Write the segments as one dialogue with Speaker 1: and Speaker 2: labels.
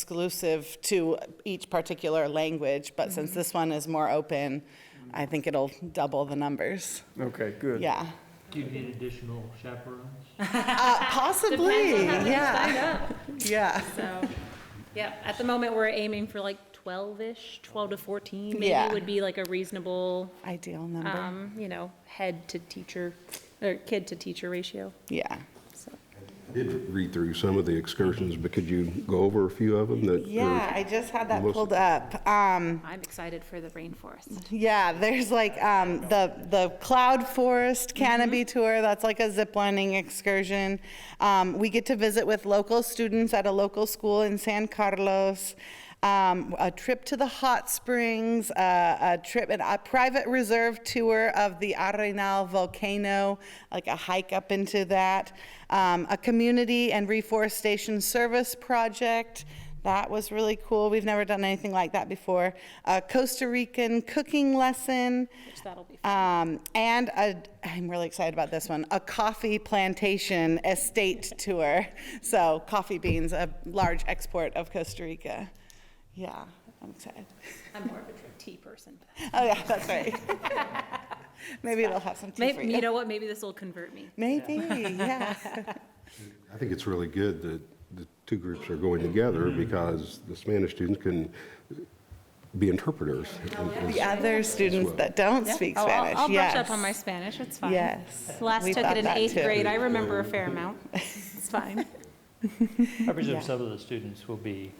Speaker 1: exclusive to each particular language, but since this one is more open, I think it'll double the numbers.
Speaker 2: Okay, good.
Speaker 1: Yeah.
Speaker 3: Do you need additional chaperones?
Speaker 1: Uh, Possibly,
Speaker 4: Depends on how many
Speaker 1: yeah,
Speaker 4: sign up.
Speaker 1: yeah.
Speaker 4: So, yeah, at the moment, we're aiming for like 12-ish, 12 to 14
Speaker 1: Yeah. Mm-hmm.
Speaker 4: maybe would be like a reasonable,
Speaker 1: Ideal number,
Speaker 4: um, you know, head to teacher, or kid to teacher ratio,
Speaker 1: yeah.
Speaker 4: so.
Speaker 5: Did read through some of the excursions, but could you go over a few of them that? are-
Speaker 1: Yeah, I just had that
Speaker 5: Melissa.
Speaker 1: pulled up. Um,
Speaker 4: I'm excited for the rainforest.
Speaker 1: Yeah, there's like um, the the Cloud Forest Canopy Tour. That's like a zip lining excursion. Um, we get to visit with local students at a local school in San Carlos. Um, a trip to the hot springs, uh, a trip, and a private reserve tour of the Arenal volcano, like a hike up into that, um, a community and reforestation service project. That was really cool. We've never done anything like that before. A Costa Rican cooking lesson.
Speaker 4: Which that'll be
Speaker 1: Um, and a, I'm really excited about this one, a coffee plantation estate tour. So coffee beans, a large export of Costa Rica. Yeah, I'm excited.
Speaker 4: I'm more of a tea person.
Speaker 1: Oh yeah, that's right. Maybe it'll have some tea for
Speaker 4: Maybe,
Speaker 1: you.
Speaker 4: you know what, maybe this will convert me.
Speaker 1: Maybe, yeah.
Speaker 5: I think it's really good that the two groups are going together
Speaker 1: Mm-hmm.
Speaker 5: because the Spanish students can be interpreters.
Speaker 1: The other students that don't speak
Speaker 4: Oh, I'll-
Speaker 1: Spanish,
Speaker 4: I'll brush
Speaker 1: yes.
Speaker 4: up on my Spanish, it's fine.
Speaker 1: Yes.
Speaker 4: Last
Speaker 1: We
Speaker 4: took
Speaker 1: thought
Speaker 4: it in
Speaker 1: that
Speaker 4: eighth
Speaker 1: too.
Speaker 4: grade, I remember a fair amount. It's fine.
Speaker 3: I presume some of the students will be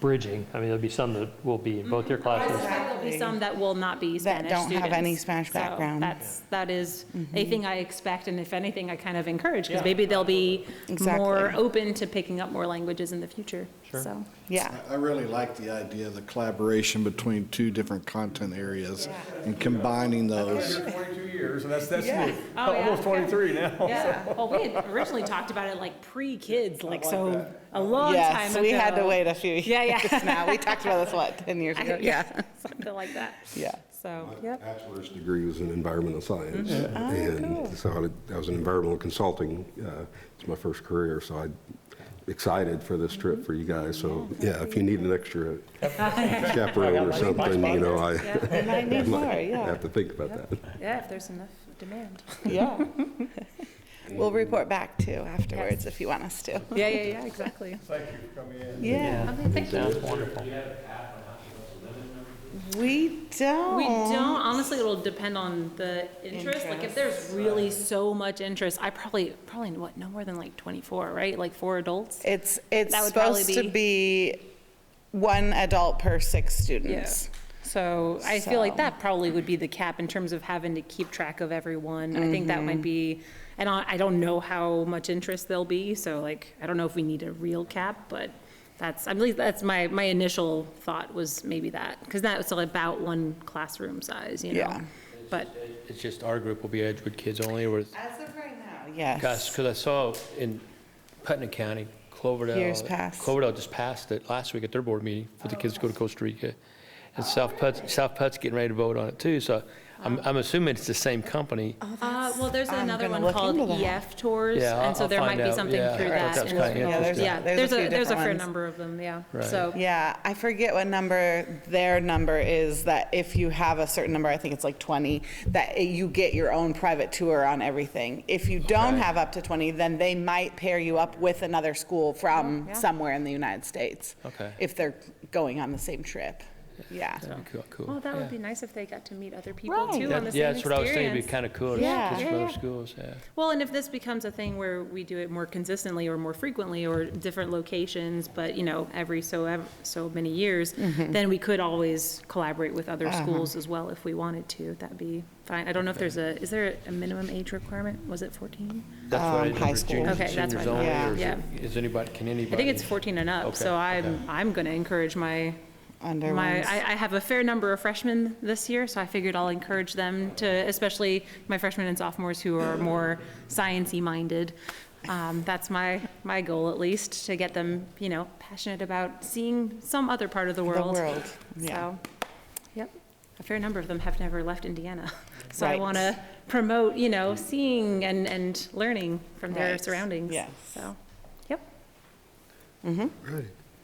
Speaker 3: bridging. I mean, there'll be some that will be in both your classes.
Speaker 4: There'll be some that will not be
Speaker 1: That
Speaker 4: Spanish
Speaker 1: don't have any
Speaker 4: students.
Speaker 1: Spanish
Speaker 4: So
Speaker 1: background. Mm-hmm.
Speaker 4: that's, that is a thing I expect, and if anything, I kind of encourage, because
Speaker 3: Yeah.
Speaker 4: maybe they'll be more
Speaker 1: Exactly.
Speaker 4: open to picking up more languages in the future,
Speaker 3: Sure.
Speaker 4: so.
Speaker 1: Yeah,
Speaker 6: I really like the idea of the collaboration between two different content areas and combining those.
Speaker 2: 22 years, and that's, that's
Speaker 1: Yeah.
Speaker 2: new.
Speaker 4: Oh, yeah,
Speaker 2: Almost
Speaker 4: okay.
Speaker 2: 23 now.
Speaker 4: Yeah, well, we had originally talked about it like pre-kids, like so, a long time ago.
Speaker 1: yes, we had to wait a few
Speaker 4: Yeah, yeah.
Speaker 1: years now. We talked about this, what, 10 years ago? Yeah,
Speaker 4: Something like that,
Speaker 1: yeah. Mm-hmm. Ah,
Speaker 4: so,
Speaker 5: My
Speaker 4: yep.
Speaker 5: bachelor's degree was in environmental science. And so I- I was in environmental consulting. uh, It's my first career, so I'm excited for this
Speaker 1: Mm-hmm.
Speaker 5: trip for you guys. So, yeah, if you need an extra chaperone or something, you know, I
Speaker 1: We might need more, yeah,
Speaker 5: have to think about that.
Speaker 4: Yeah, if there's enough demand.
Speaker 1: yeah. We'll report back too afterwards if you want us to.
Speaker 4: Yeah, yeah, yeah, exactly.
Speaker 2: Thank you for coming in.
Speaker 1: Yeah,
Speaker 4: Okay, thank you.
Speaker 3: Sounds wonderful.
Speaker 1: we don't.
Speaker 4: We don't, honestly, it'll depend on the interest, like if there's really so much interest, I probably, probably what, no more than like twenty-four, right, like four adults?
Speaker 1: It's, it's
Speaker 4: That would probably
Speaker 1: supposed to be one adult per six students.
Speaker 4: So I feel like
Speaker 1: So-
Speaker 4: that probably would be the cap in terms of having to keep track of everyone, I think that
Speaker 1: Mm-hmm.
Speaker 4: might be, and I, I don't know how much interest there'll be, so like, I don't know if we need a real cap, but that's, I believe that's my, my initial thought was maybe that, because that was about one classroom size, you
Speaker 1: Yeah.
Speaker 4: know? But.
Speaker 7: It's just our group will be Edgewood kids only, or,
Speaker 1: As of right now,
Speaker 7: gosh,
Speaker 1: yes.
Speaker 7: because I saw in Putnam County, Cloverdale.
Speaker 1: Years past.
Speaker 7: Cloverdale just passed it last week at their board meeting for the kids to
Speaker 4: Oh.
Speaker 7: go to Costa Rica. And South Putt, South Putt's getting ready to vote on it too, so I'm, I'm assuming it's the same company.
Speaker 4: Uh, well, there's
Speaker 1: I'm
Speaker 4: another
Speaker 1: gonna
Speaker 4: one
Speaker 1: look into
Speaker 4: called
Speaker 1: that.
Speaker 4: EF Tours,
Speaker 7: Yeah,
Speaker 4: and so
Speaker 7: I'll-
Speaker 4: there
Speaker 7: I'll
Speaker 4: might
Speaker 7: find
Speaker 4: be
Speaker 7: out.
Speaker 4: something
Speaker 7: Yeah,
Speaker 4: through
Speaker 7: I thought
Speaker 4: that.
Speaker 7: that was
Speaker 4: and-
Speaker 7: kinda Yeah,
Speaker 1: there's- interesting.
Speaker 4: Yeah,
Speaker 1: there's a
Speaker 4: there's
Speaker 1: few
Speaker 4: a, there's a fair
Speaker 1: different ones.
Speaker 4: number of them, yeah,
Speaker 7: Right.
Speaker 4: so.
Speaker 1: Yeah, I forget what number their number is, that if you have a certain number, I think it's like 20, that you get your own private tour on everything. If you don't
Speaker 7: Okay.
Speaker 1: have up to 20, then they might pair you up with another school from
Speaker 4: Oh,
Speaker 1: somewhere in the United States.
Speaker 7: Okay.
Speaker 1: If they're going on the same trip, yeah.
Speaker 7: Cool, cool.
Speaker 4: Well, oh, that
Speaker 7: Yeah.
Speaker 4: would be nice if they got to meet other people too
Speaker 7: That-
Speaker 4: on the
Speaker 7: Yeah,
Speaker 4: same
Speaker 7: that's what I was thinking, it'd be
Speaker 4: experience.
Speaker 7: kind of cool, if
Speaker 1: Yeah.
Speaker 7: kids from
Speaker 4: Yeah,
Speaker 7: other
Speaker 4: yeah.
Speaker 7: schools, yeah.
Speaker 4: Well, and if this becomes a thing where we do it more consistently or more frequently or different locations, but, you know, every so, ev- so many years,
Speaker 1: Mm-hmm.
Speaker 4: then we could always collaborate with other
Speaker 1: Uh-huh.
Speaker 4: schools as well if we wanted to, that'd be fine. I don't know if there's a, is there a minimum age requirement? Was it 14?
Speaker 7: That's
Speaker 1: Um,
Speaker 7: what I did
Speaker 1: high
Speaker 7: for
Speaker 1: school.
Speaker 7: juniors and
Speaker 4: Okay, that's
Speaker 7: seniors
Speaker 4: what I
Speaker 7: only,
Speaker 1: thought.
Speaker 7: or is
Speaker 4: Yeah.
Speaker 7: it- is anybody, can anybody?
Speaker 4: I think it's 14 and up, so
Speaker 7: Okay,
Speaker 4: I'm, I'm going to encourage my,
Speaker 1: Under
Speaker 4: my,
Speaker 1: ones.
Speaker 4: I, I have a fair number of freshmen this year, so I figured I'll encourage them to, especially my freshmen and sophomores who are more science-y minded. Um, That's my, my goal at least, to get them, you know, passionate about seeing some other part of the world.
Speaker 1: world, yeah.
Speaker 4: So, yep, a fair number of them have never left Indiana. So I
Speaker 1: Right.
Speaker 4: want to promote, you know, seeing and, and learning from their
Speaker 1: Right.
Speaker 4: surroundings.
Speaker 1: Yes.
Speaker 4: So, yep.
Speaker 5: Right.